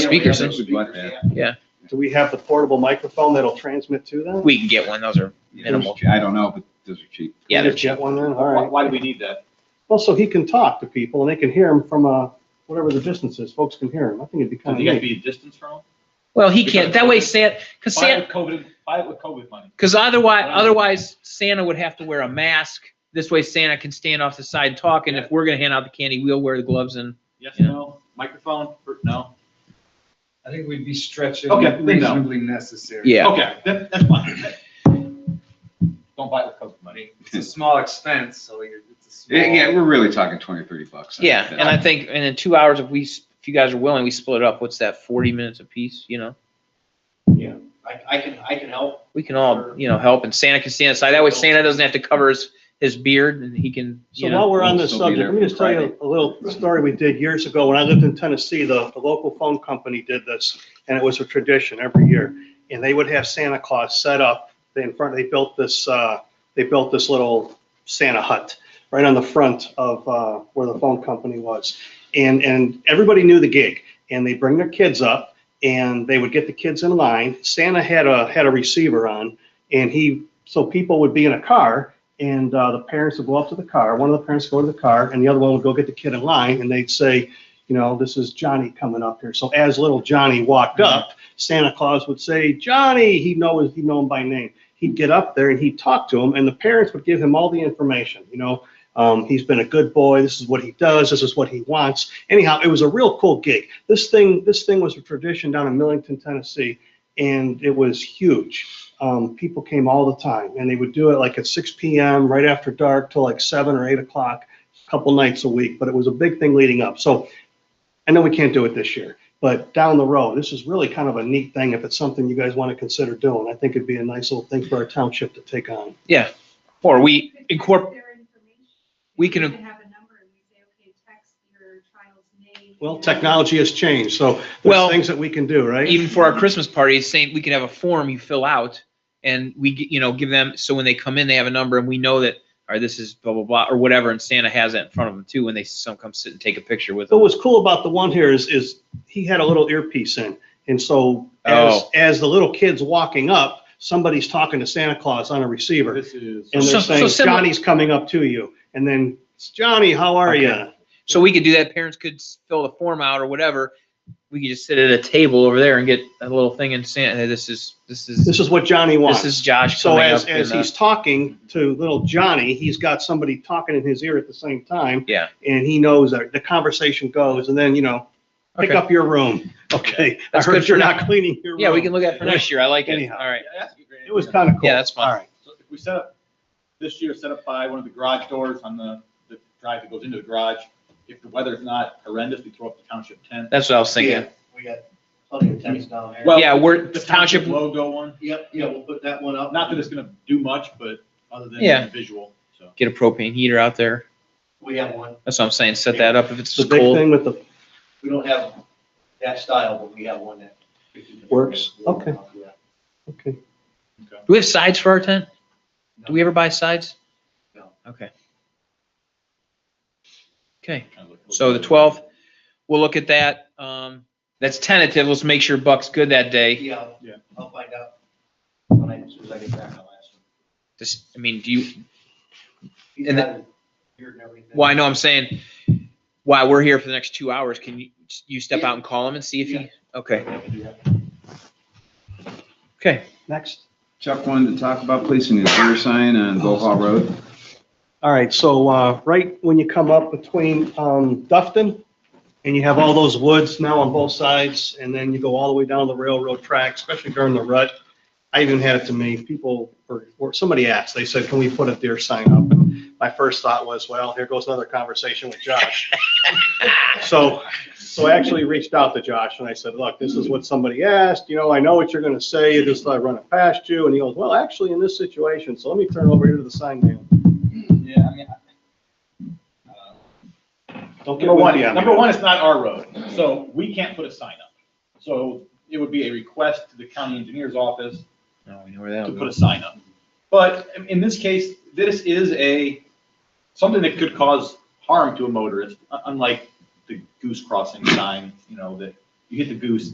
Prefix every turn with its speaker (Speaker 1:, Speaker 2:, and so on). Speaker 1: speakers
Speaker 2: Yeah,
Speaker 1: in.
Speaker 2: those would be like that.
Speaker 3: Do we have the portable microphone that'll transmit to them?
Speaker 1: We can get one, those are, Minimal.
Speaker 2: I don't know, but those are cheap.
Speaker 1: yeah,
Speaker 3: Get a
Speaker 1: they're-
Speaker 3: jet one then, all
Speaker 4: Why,
Speaker 3: right.
Speaker 4: why do we need that?
Speaker 3: Well, so he can talk to people and they can hear him from, uh, whatever the distance is, folks can hear him. I think it'd be
Speaker 4: So
Speaker 3: kind
Speaker 4: you got to
Speaker 3: of.
Speaker 4: be a distance from them?
Speaker 1: well, he can't, that way Santa, because
Speaker 4: Buy it
Speaker 1: Santa,
Speaker 4: with COVID, buy it with COVID money.
Speaker 1: because otherwise, otherwise Santa would have to wear a mask. This way Santa can stand off the side and talk, and if we're gonna hand out the candy, we'll wear the gloves and,
Speaker 4: Yes,
Speaker 1: Yeah.
Speaker 4: no, microphone, or no?
Speaker 5: I think we'd be stretching
Speaker 4: Okay, then no.
Speaker 5: reasonably necessary.
Speaker 1: yeah.
Speaker 4: Okay, that, that's fine. Don't buy it with COVID
Speaker 5: I
Speaker 4: money.
Speaker 5: mean, It's a small expense, so you're, it's a small.
Speaker 2: Yeah, yeah, we're really talking twenty, thirty bucks. I
Speaker 1: Yeah,
Speaker 2: think
Speaker 1: and I think, and in two hours, if we, s- if you guys are willing, we split it up, what's that, forty minutes apiece, you know?
Speaker 4: I, I can, I can help.
Speaker 1: We can all, you know, help, and Santa can stand aside, that way Santa doesn't have to cover his, his beard, and he can,
Speaker 3: So
Speaker 1: you know.
Speaker 3: while we're on
Speaker 2: we'll
Speaker 3: this
Speaker 2: still be
Speaker 3: subject,
Speaker 2: there
Speaker 3: let me just
Speaker 2: for
Speaker 3: tell you
Speaker 2: Friday.
Speaker 3: a little story we did years ago. When I lived in Tennessee, the, the local phone company did this and it was a tradition every year. And they would have Santa Claus set up They in front, they built this, uh, they built this little Santa hut right on the front of, uh, where the phone company was. And, and everybody knew the gig and they'd bring their kids up and they would get the kids in line. Santa had a, had a receiver on and he, so people would be in a car and, uh, the parents would go up to the car. One of the parents would go to the car and the other one would go get the kid in line and they'd say, you know, this is Johnny coming up here. So as little Johnny walked up, Santa Claus would say, Johnny, he'd know, his- he'd know him by name he'd get up there and he'd talk to him, and the parents would give him all the information. You know, um, he's been a good boy. This is what he does. This is what he wants. Anyhow, it was a real cool gig. This thing, this thing was a tradition down in Millington, Tennessee, and it was huge. Um, people came all the time, and they would do it like at 6 p.m. right after dark till like seven or eight o'clock, a couple nights a week. But it was a big thing leading up. So I know we can't do it this year. But down the road, this is really kind of a neat thing. If it's something you guys want to consider doing, I think it'd be a nice little thing for our township to take on.
Speaker 1: Or we incorporate,
Speaker 6: Their information.
Speaker 1: we can-
Speaker 6: You have a number and you say, okay, text your child's name.
Speaker 3: Well,
Speaker 6: and-
Speaker 3: technology has changed, so
Speaker 1: Well,
Speaker 3: there's things that we can do, right?
Speaker 1: even for our Christmas party, it's saying we can have a form you fill out and we, g- you know, give them, so when they come in, they have a number and we know that, or this is blah, blah, blah, or whatever, and Santa has that in front of them too, when they some come sit and take a picture with
Speaker 3: What
Speaker 1: them.
Speaker 3: was cool about the one here is, is he had a little earpiece in, and so as,
Speaker 1: Oh.
Speaker 3: as the little kid's walking up, somebody's talking to Santa Claus on a receiver,
Speaker 4: This is.
Speaker 3: and
Speaker 1: So-
Speaker 3: they're
Speaker 1: so
Speaker 3: saying,
Speaker 1: similar-
Speaker 3: Johnny's coming up to you, and then, Johnny, how are
Speaker 1: Okay.
Speaker 3: you?
Speaker 1: So we could do that, parents could s- fill the form out or whatever, we could just sit at a table over there and get a little thing and Santa, hey, this is, this is,
Speaker 3: This is what Johnny wants.
Speaker 1: this is Josh
Speaker 3: So
Speaker 1: coming up.
Speaker 3: as, as
Speaker 1: and, uh,
Speaker 3: he's talking to little Johnny, he's got somebody talking in his ear at the same time.
Speaker 1: Yeah.
Speaker 3: And he knows that the conversation goes and then, you know, pick
Speaker 1: uh, Okay.
Speaker 3: up your room. Okay. I
Speaker 1: That's good
Speaker 3: heard
Speaker 1: for
Speaker 3: you're
Speaker 1: now.
Speaker 3: not cleaning your room.
Speaker 1: Yeah, we can look at it for next year, I like it,
Speaker 3: Anyhow.
Speaker 1: all right.
Speaker 4: Yeah, that's a great
Speaker 3: It was
Speaker 4: idea.
Speaker 3: kind of cool.
Speaker 1: Yeah, that's fine.
Speaker 3: All right.
Speaker 4: So if we set up, this year, set up by one of the garage doors on the, the drive that goes into the garage. If the weather's not horrendous, we throw up the township tent.
Speaker 1: That's what I was thinking,
Speaker 7: We got plenty of tents down there.
Speaker 4: Well,
Speaker 1: yeah, we're,
Speaker 4: The
Speaker 1: township,
Speaker 4: township logo one,
Speaker 7: Yep, yeah, we'll put that one up.
Speaker 4: not that it's gonna do much, but other
Speaker 1: Yeah.
Speaker 4: than visual, so.
Speaker 1: get a propane heater out there,
Speaker 7: We have one.
Speaker 1: that's what I'm saying, set that up if it's
Speaker 3: The
Speaker 1: just
Speaker 3: big
Speaker 1: cold.
Speaker 3: thing with the,
Speaker 7: We don't have that style, but we have one that.
Speaker 3: Works. Okay.
Speaker 7: Yeah.
Speaker 3: okay.
Speaker 1: Do we have sides for our tent? Do we ever buy sides?
Speaker 7: No.
Speaker 1: Okay. Okay, so the twelfth, we'll look at that. Um, that's tentative. Let's make sure Buck's good that day.
Speaker 7: Yeah,
Speaker 4: Yeah.
Speaker 7: I'll find out when I, as soon as I get back, I'll ask him.
Speaker 1: Just, I mean, do you,
Speaker 7: He's
Speaker 1: And the-
Speaker 7: got it here and everything.
Speaker 1: well, I know I'm saying, while we're here for the next two hours, can you, you step out and call him and see if
Speaker 7: Yeah.
Speaker 1: he, okay,
Speaker 7: Yeah.
Speaker 1: okay.
Speaker 3: Next.
Speaker 2: Chuck wanted to talk about placing a deer sign on Bohall Road.
Speaker 3: All right. So, uh, right when you come up between, um, Dufton and you have all those woods now on both sides, and then you go all the way down the railroad track, especially during the rut. I even had it to me, people, or, or somebody asked, they said, can we put a deer sign up? And My first thought was, well, here goes another conversation with Josh. So, so I actually reached out to Josh and I said, look, this is what somebody asked, you know, I know what you're gonna say, just I run it past you, and he goes, well, actually, in this situation, so let me turn over here to the sign man.
Speaker 4: Yeah, I mean, uh,
Speaker 3: Don't give
Speaker 4: Number
Speaker 3: him
Speaker 4: one,
Speaker 3: the-
Speaker 4: number one, it's not our road, so we can't put a sign up. So it would be a request to the county engineer's office
Speaker 1: Now we know where that'll
Speaker 4: to
Speaker 1: go.
Speaker 4: put a sign up. But in- in this case, this is a, something that could cause harm to a motorist, u- unlike the goose crossing sign, you know, that you hit the goose,